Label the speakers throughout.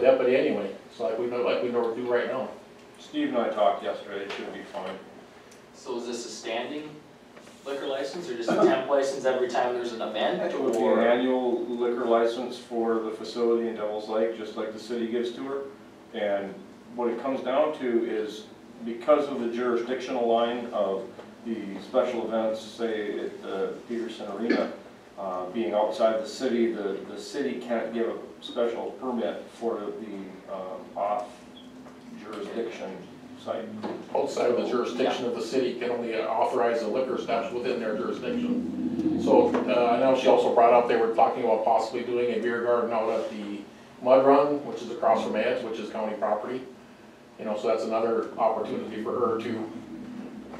Speaker 1: deputy anyway, it's like we know, like we know do right now.
Speaker 2: Steve and I talked yesterday, it should be fine.
Speaker 3: So is this a standing liquor license or just a temp license every time there's an event
Speaker 2: It would be an
Speaker 3: or?
Speaker 2: annual liquor license for the facility in Devil's Lake, just like the city gives to her. And what it comes down to is because of the jurisdictional line of the special events, say at the Peterson Arena, uh, being outside the city, the, the city can't give a special permit for the um, off jurisdiction site.
Speaker 1: Outside of the jurisdiction of the city can only authorize the liquor stops within their jurisdiction. So, uh, I know she also brought up, they were talking about possibly doing a beer garden out at the Mud Run, which is across from Ed's, which is county property. You know, so that's another opportunity for her to,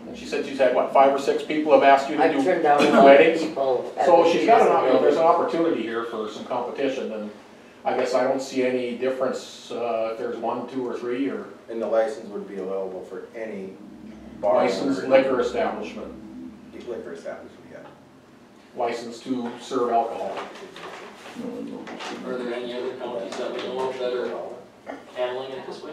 Speaker 1: and she said she's had, what, five or six people have asked you to do
Speaker 4: I've turned down a lot of
Speaker 1: weddings?
Speaker 4: people. at
Speaker 1: So
Speaker 4: the
Speaker 1: she's got an,
Speaker 4: Peterson
Speaker 1: op- you know, there's an
Speaker 4: Arena.
Speaker 1: opportunity here for some competition, and I guess I don't see any difference, uh, if there's one, two, or three, or
Speaker 5: And the license would be available for any bar. or
Speaker 1: licensed liquor establishment,
Speaker 5: Liquor establishment, yeah.
Speaker 1: licensed to serve alcohol.
Speaker 3: Are there any other counties that we know of that are handling it this way?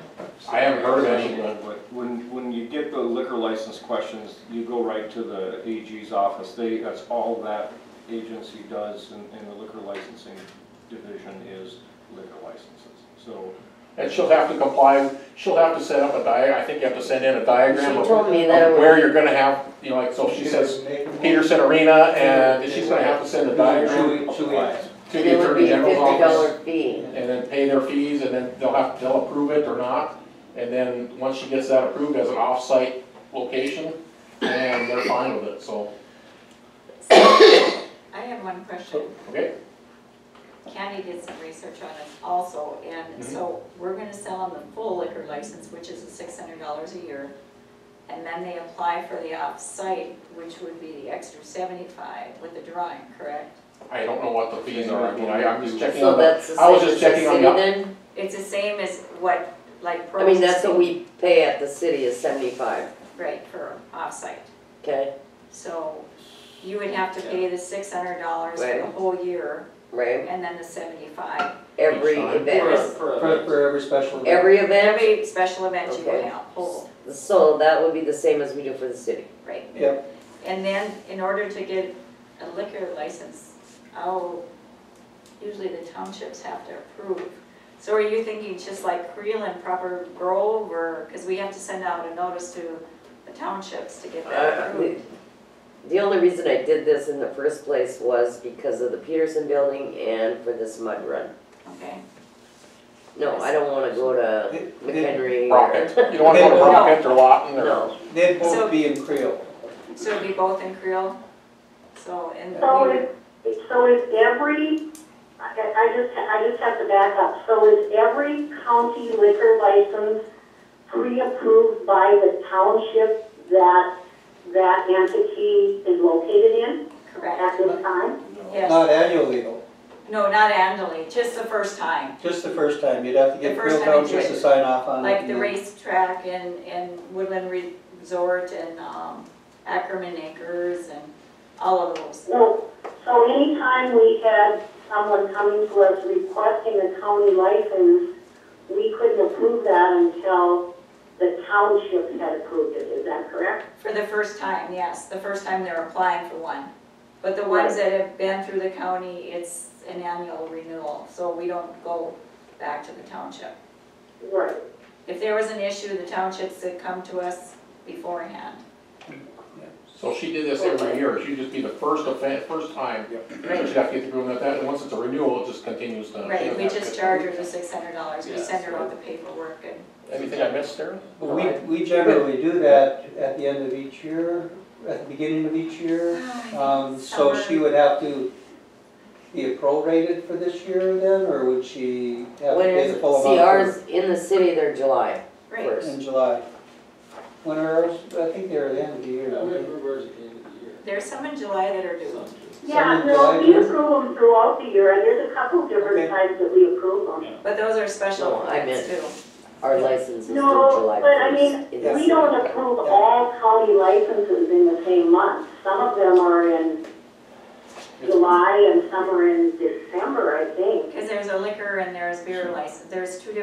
Speaker 1: I haven't heard of any, but-
Speaker 2: But When, when you get the liquor license questions, you go right to the AG's office. They, that's all that agency does in, in the liquor licensing division is liquor licenses. So,
Speaker 1: And she'll have to comply, she'll have to set up a dia, I think you have to send in a diagram
Speaker 4: She
Speaker 1: of
Speaker 4: told me that it
Speaker 1: of where
Speaker 4: was,
Speaker 1: you're gonna have, you know, like, so if she says Peterson Arena, and she's gonna have to send a diagram to
Speaker 4: it
Speaker 1: the
Speaker 4: would
Speaker 1: Attorney
Speaker 4: be a
Speaker 1: General's
Speaker 4: fifty
Speaker 1: office.
Speaker 4: dollar fee.
Speaker 1: and then pay their fees, and then they'll have, they'll approve it or not. And then, once she gets that approved as an off-site location, and they're fine with it, so,
Speaker 6: I have one question.
Speaker 1: okay?
Speaker 6: Candy did some research on this also, and so we're gonna sell them the full liquor license, which is six hundred dollars a year. And then they apply for the off-site, which would be the extra seventy-five with the drawing, correct?
Speaker 1: I don't know what the fees are, I mean, I, I'm just checking
Speaker 4: So
Speaker 1: on the,
Speaker 4: that's the
Speaker 1: I was
Speaker 4: same
Speaker 1: just
Speaker 4: as the
Speaker 1: checking on
Speaker 4: city
Speaker 1: the-
Speaker 4: then?
Speaker 6: It's the same as what, like.
Speaker 4: I mean, that's
Speaker 6: Brose's
Speaker 4: what we pay at the city is seventy-five,
Speaker 6: did, Right, for off-site.
Speaker 4: okay,
Speaker 6: So you would have to pay the six hundred dollars for the
Speaker 4: Right.
Speaker 6: whole year,
Speaker 4: right?
Speaker 6: and then the seventy-five.
Speaker 4: Every
Speaker 1: time.
Speaker 3: For a-
Speaker 4: event,
Speaker 3: for a-
Speaker 7: For, for every special. event.
Speaker 4: every event,
Speaker 6: Every special event you would
Speaker 4: Okay.
Speaker 6: have, whole.
Speaker 4: so that would be the same as we do for the city.
Speaker 6: Right.
Speaker 7: Yep.
Speaker 6: And then, in order to get a liquor license, oh, usually the townships have to approve. So are you thinking just like Creel and proper Grove, or, because we have to send out a notice to the townships to get that
Speaker 4: Uh,
Speaker 6: approved?
Speaker 4: The only reason I did this in the first place was because of the Peterson building and for this mud run.
Speaker 6: Okay,
Speaker 4: No, I don't wanna go to
Speaker 7: They- they-
Speaker 4: McHenry
Speaker 1: Rocket,
Speaker 4: or,
Speaker 1: you don't wanna go to Rocket or Lawton or,
Speaker 4: no,
Speaker 7: They'd
Speaker 6: So-
Speaker 7: both be in Creole.
Speaker 6: so it'd be both in Creel, so, and.
Speaker 8: So is, so is every, I, I just, I just have to back up. So is every county liquor license pre-approved by the township that that entity is located in
Speaker 6: Correct,
Speaker 8: at this time?
Speaker 6: yes,
Speaker 7: Not annually though,
Speaker 6: no, not annually, just the first time,
Speaker 7: just the first time. You'd have to
Speaker 6: The
Speaker 7: get
Speaker 6: first
Speaker 7: Creole
Speaker 6: time you
Speaker 7: Township
Speaker 6: do
Speaker 7: to
Speaker 6: it.
Speaker 7: sign off on it.
Speaker 6: like
Speaker 7: and
Speaker 6: the
Speaker 7: then-
Speaker 6: racetrack and, and Woodland Resort and, um, Ackerman Acres and all of those.
Speaker 8: No, so anytime we had someone coming to us requesting a county license, we couldn't approve that until the township had approved it, is that correct?
Speaker 6: For the first time, yes, the first time they're applying for one. But the ones that have been through the county, it's an annual renewal, so we don't go back to the township.
Speaker 8: Right.
Speaker 6: If there was an issue, the townships that come to us beforehand.
Speaker 1: so she did this every year, she'd just be the first offense, first time. So she'd have to get the agreement that, and once it's a renewal, it just continues to.
Speaker 6: Right, we just charge her the six hundred dollars, we send her out the paperwork and,
Speaker 1: Anything I missed there?
Speaker 7: But we, we generally do that at the end of each year, at the beginning of each year. Um, so she would have to be prorated for this year then, or would she have to
Speaker 4: when
Speaker 7: pay
Speaker 4: is,
Speaker 7: the full amount
Speaker 4: CRs in the city, they're July
Speaker 6: right,
Speaker 7: for-
Speaker 4: first.
Speaker 7: in July? When are, ours? I think they're at the end of the year.
Speaker 9: Yeah,
Speaker 7: aren't they?
Speaker 9: where's the end of the year?
Speaker 6: there's some in July that are due.
Speaker 8: Yeah,
Speaker 7: Some
Speaker 8: no,
Speaker 7: drive
Speaker 8: we
Speaker 7: in.
Speaker 8: approve them throughout the year, and there's a couple
Speaker 7: Okay.
Speaker 8: different times that we approve them.
Speaker 6: But those are special
Speaker 4: No, I
Speaker 6: events too.
Speaker 4: Our license is due
Speaker 8: No,
Speaker 4: July
Speaker 8: but I
Speaker 4: first. in the
Speaker 8: We
Speaker 4: city.
Speaker 8: don't approve all county licenses in the same month. Some of them are in July and some are in December, I think.
Speaker 6: Cause there's a liquor and there's beer license, there's two different